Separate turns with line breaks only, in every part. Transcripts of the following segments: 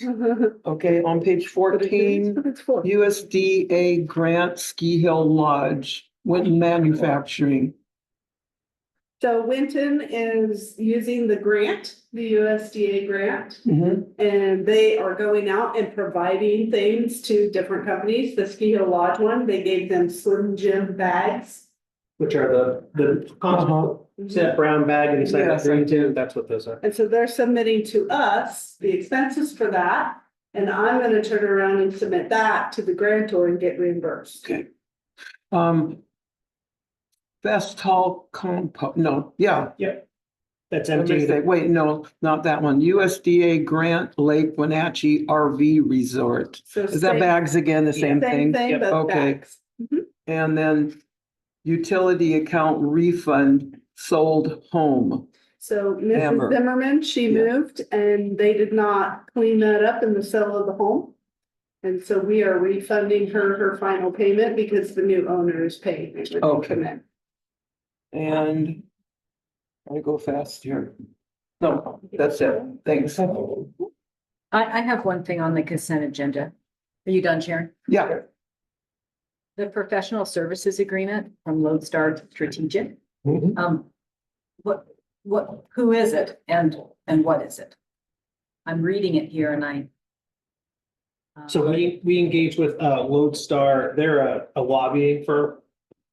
Okay, on page fourteen, USDA grant Ski Hill Lodge, Winton Manufacturing.
So Winton is using the grant, the USDA grant,
Mhm.
and they are going out and providing things to different companies. The Ski Hill Lodge one, they gave them Slim Jim bags.
Which are the, the
Uh-huh.
constant, that brown bag inside
Yes,
the
I
green tin, that's what those are.
And so they're submitting to us the expenses for that. And I'm gonna turn around and submit that to the grantor and get reimbursed.
Okay. Um. Best Hall Compo, no, yeah.
That's
I
empty.
missed that. Wait, no, not that one. USDA grant Lake Wenatchee RV Resort.
So
Is that
same-
bags again, the
Same
same thing?
thing,
Yep.
but
Okay.
bags.
And then utility account refund sold home.
So Mrs.
Amber.
Zimmerman, she
Yeah.
moved and they did not clean that up in the sale of the home. And so we are refunding her her final payment because the new owner is paying. it when they
Okay.
come in.
And I go fast here. No, that's it. Thanks.
I, I have one thing on the consent agenda. Are you done, Sharon?
Yeah,
The professional services agreement from Lodestar Strategic,
Mhm.
um, what, what, who is it and, and what is it? I'm reading it here and I. uh,
So we, we engage with, uh, Lodestar, they're a, a lobbying firm,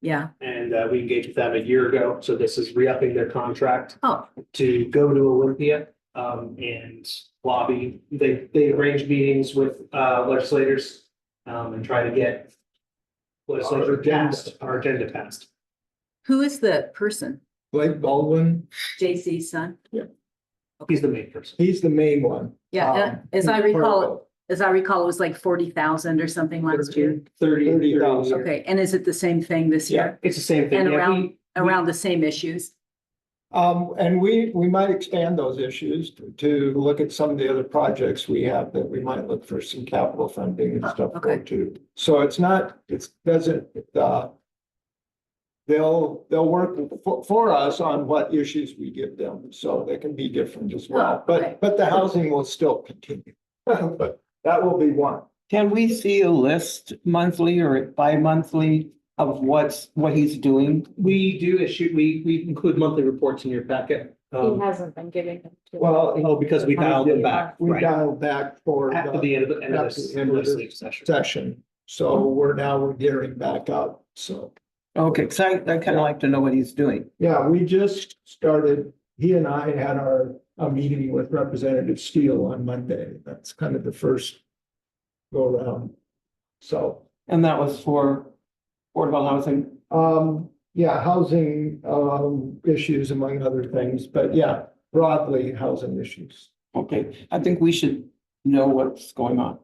Yeah,
and, uh, we engaged with them a year ago, so this is re-upping their contract.
oh,
to go to Olympia um and lobby. They they arrange meetings with uh legislators um and try to get legislature passed, our agenda passed.
who is the person?
Blake Baldwin,
JC son?
He's the main person.
he's the main one.
Yeah, uh,
Um,
as I
he's part
recall,
of
as I recall, it was like forty thousand or something last year.
Thirty.
30,000.
Okay, and is it the same thing this
Yeah,
year?
it's the same thing.
And
Yeah,
around-
we-
Around the same issues?
it. Um, and we, we might expand those issues to- to look at some of the other projects we have that we might look for some capital funding and
Oh,
stuff for
okay.
too. So it's not, it's, doesn't, uh, they'll, they'll work for, for us on what issues we give them, so they can be different as well.
Oh, okay.
But, but the housing will still continue, but that will be one.
can we see a list monthly or bi-monthly of what's, what he's doing?
We do issue, we we include monthly reports in your packet.
He
Um
hasn't been giving them to.
Well,
oh, because we dialed them back,
we
right,
dialed back for. the-
after the end of the end of
After
this
the end of this
legislative session.
session. So we're now we're gearing back up. So,
Okay, because I, I kind of like to know what he's doing.
yeah, we just started, he and I had our, a meeting with Representative Steele on Monday. That's kind of the first go around. So,
And that was for affordable housing.
um, yeah, housing, um, issues among other things, but yeah, broadly housing issues.
Okay, I think we should know what's going on.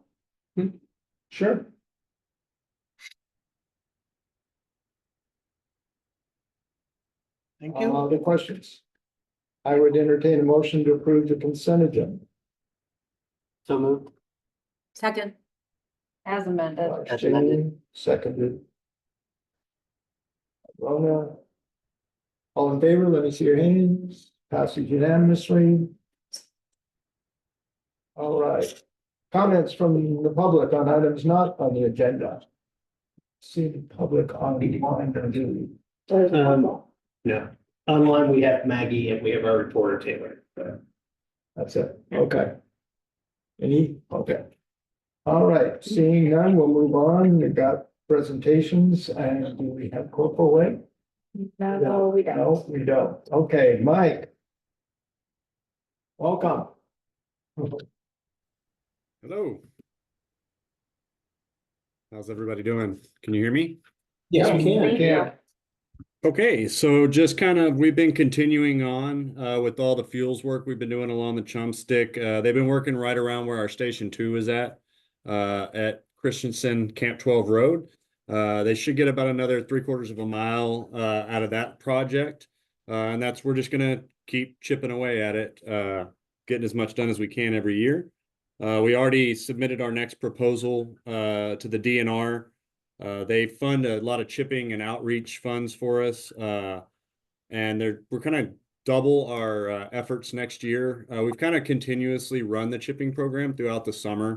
Sure.
Thank you.
All the Uh, questions. I would entertain a motion to approve the consent agenda.
So moved.
Second,
As amended.
Jane, seconded. Rona. All in favor, let me see your hands. Passes unanimously. All right. Comments from the public on items not on the agenda. See the public on the line, or do we?
Um, no, online we have Maggie and we have our reporter Taylor, but.
That's it, okay. Any, okay. All right, seeing none, we'll move on. We've got presentations and do we have corporal Lake?
No, we don't.
No, we don't. Okay, Mike. Welcome.
Hello. How's everybody doing? Can you hear me?
Yes,
we
can.
We can.
Okay, so just kind of, we've been continuing on uh, with all the fuels work we've been doing along the Chum Stick. Uh, they've been working right around where our Station Two is at, uh, at Christensen Camp Twelve Road. Uh, they should get about another three quarters of a mile uh, out of that project, uh, and that's we're just gonna keep chipping away at it, uh, getting as much done as we can every year. Uh, we already submitted our next proposal uh, to the DNR. Uh, they fund a lot of chipping and outreach funds for us, uh, and they're, we're kind of double our uh, efforts next year. Uh, we've kind of continuously run the chipping program throughout the summer.